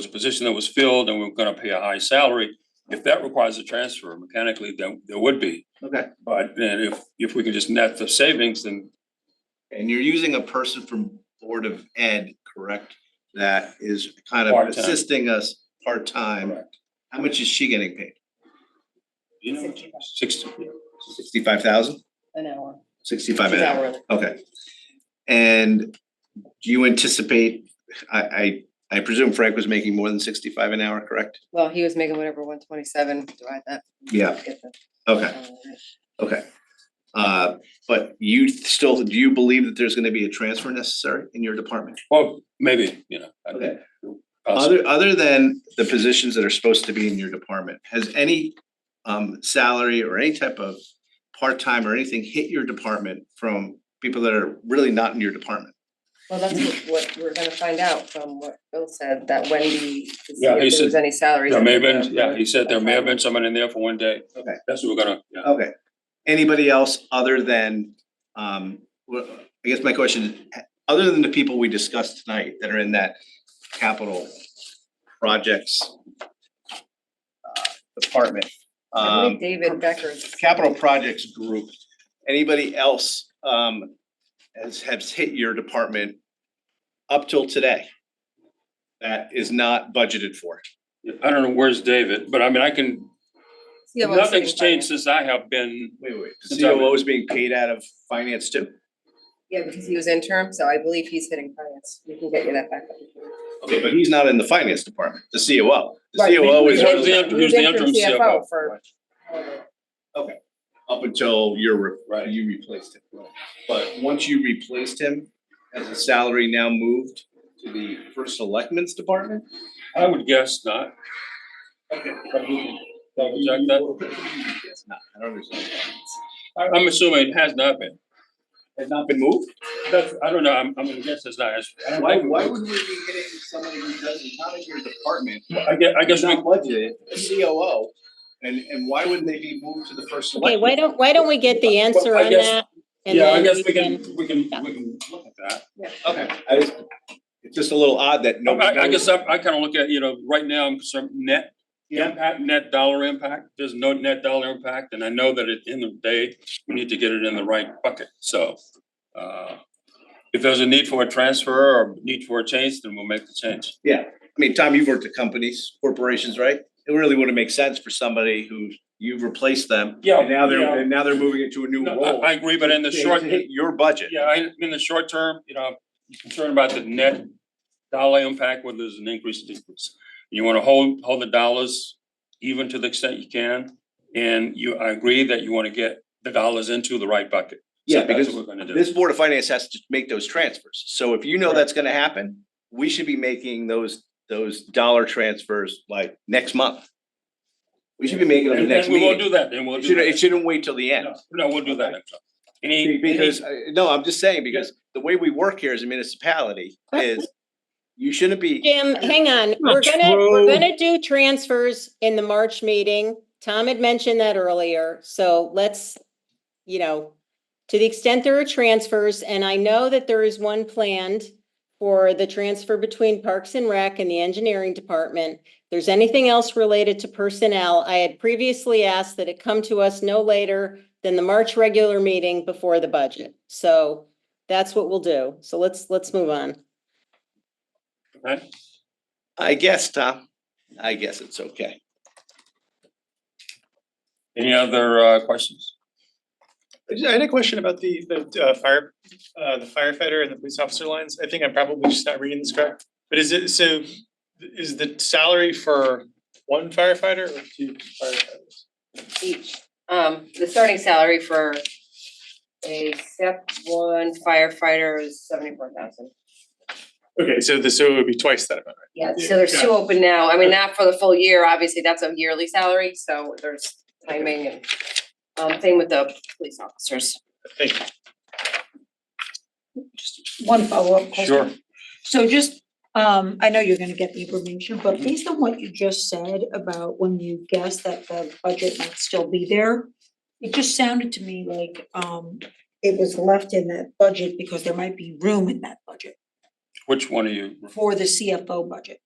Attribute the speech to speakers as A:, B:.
A: was a position that was filled and we we're gonna pay a high salary. If that requires a transfer mechanically, then there would be.
B: Okay,
A: But then if, if we can just net the savings, then
B: and you're using a person from Board of Ed, correct? That is kind of
A: Part-time.
B: assisting us part-time.
A: Correct.
B: How much is she getting paid?
A: you know, sixty,
B: Sixty-five thousand?
C: an hour.
B: Sixty-five an
C: She's
B: hour,
C: hourly.
B: okay. And do you anticipate, I I I presume Frank was making more than sixty-five an hour, correct?
C: Well, he was making whatever, one twenty-seven, divide that.
B: Yeah.
C: get the- uh,
B: Okay, okay. Uh, but you still, do you believe that there's gonna be a transfer necessary in your department?
A: well, maybe, you know. I-
B: Okay.
A: possibly.
B: Other other than the positions that are supposed to be in your department, has any um salary or any type of part-time or anything hit your department from people that are really not in your department?
C: Well, that's what- what we're gonna find out from what Bill said, that Wendy, to see
A: Yeah, he
C: if
A: said
C: there was any salaries.
A: There may have
C: in
A: been,
C: there.
A: yeah, he said there may have been someone in there for one day.
B: Okay. Oh.
A: That's what we're gonna, yeah.
B: Okay. Anybody else other than um, wha- I guess my question, is, h- other than the people we discussed tonight that are in that capital projects uh department,
C: I
B: um.
C: believe David Becker's.
B: capital projects group, anybody else um has has hit your department up till today? That is not budgeted for.
A: I don't know, where's David, but I mean, I can,
C: Yeah, well, it's
A: nothing's
C: sitting by
A: changed
C: him.
A: since I have been,
B: Wait, wait. The
A: Since I've been-
B: COO is being paid out of finance too?
C: Yeah, because he was interim, so I believe he's hitting finance. We can get you that back. up.
B: Okay, but he's not in the finance department, the COO. The
A: E
C: Right,
B: COO is
C: he was
A: He was the interim- he was the interim CFO.
C: For. however,
B: up until you're, re-
A: Right.
B: you replaced him. But once you replaced him, has the salary now moved to the first selectmen's department?
A: I would guess not.
B: Okay.
A: But we can double check that.
B: Yes, not, I don't understand.
A: I, I'm assuming it has not been.
B: Has not been moved?
A: That's, I don't know, I'm, I'm gonna guess it's not, it's- I don't
B: Why,
A: think it
B: why
A: was.
B: would we be hitting somebody who doesn't, not in your department,
A: I guess, I
B: is
A: guess,
B: not
A: we-
B: budgeted, a COO? And, and why wouldn't they be moved to the first
D: Okay,
B: selectman?
D: why don't, why don't we get the answer
A: I
D: on
A: guess-
D: that? and
A: yeah, I
D: then
A: guess
D: we
A: we can, we can, we can look at that.
B: Okay, I just, it's just a little odd that nobody.
A: I, I
B: knows.
A: guess uh, I, I kinda look at, you know, right now, I'm concerned net
B: Yeah.
A: impact, net dollar impact, there's no net dollar impact, and I know that at the end of the day, we need to get it in the right bucket, so. Uh, if there's a need for a transfer or need for a change, then we'll make the change.
B: I mean, Tom, you've worked at companies, corporations, right? It really wouldn't make sense for somebody who you've replaced them.
A: Yeah,
B: And now
A: yeah.
B: they're, and now they're moving into a new
A: No,
B: role.
A: I, I agree, but in the
B: They
A: short,
B: hit Your budget.
A: Yeah, I, in the short term, you know, I'm concerned about the net dollar impact, whether there's an increase or decrease. You wanna hold, hold the dollars even to the extent you can, and you, I agree that you wanna get the dollars into the right bucket. So
B: Yeah,
A: that's
B: because
A: what We're gonna do,
B: This Board of Finance has to make those transfers. So if you know that's gonna happen, we should be making those, those dollar transfers like next month. We should be making them the
A: and
B: next
A: and we won't do
B: meeting.
A: that, and we'll
B: It
A: do
B: shouldn't, it
A: that.
B: shouldn't wait till the end.
A: No, No, we'll do that next time. Any, any,
B: Because, uh, no, I'm just saying, because the way we work here as a municipality is you shouldn't be.
D: Jim, hang on, we're gonna, we're gonna do transfers in the March meeting. Tom had mentioned that earlier, so let's, you know, to the extent there are transfers, and I know that there is one planned for the transfer between Parks and Rec and the Engineering Department. There's anything else related to personnel, I had previously asked that it come to us no later than the March regular meeting before the budget. So that's what we'll do. So let's, let's move on.
B: I guess, Tom. I guess it's okay.
A: any other, uh, questions?
E: I just- I had a question about the, the uh, fire, uh, the firefighter and the police officer lines. I think I'm probably just not reading this correct. But is it, so is the salary for one firefighter or two firefighters?
C: Each, um, the starting salary for a step one firefighter is seventy-four thousand.
E: Okay, so the, so it would be twice that amount,
C: Yeah, so there's two open now. I mean, not for the full year, obviously, that's a yearly salary, so there's timing and um, same with the police officers.
E: right? Thank you.
F: One follow-up question.
A: Sure.
F: So just, um, I know you're gonna get the information, but based on what you just said about when you guessed that the budget might still be there, it just sounded to me like, um, it was left in that budget because there might be room in that budget
A: Which one are you,
F: for the CFO budget.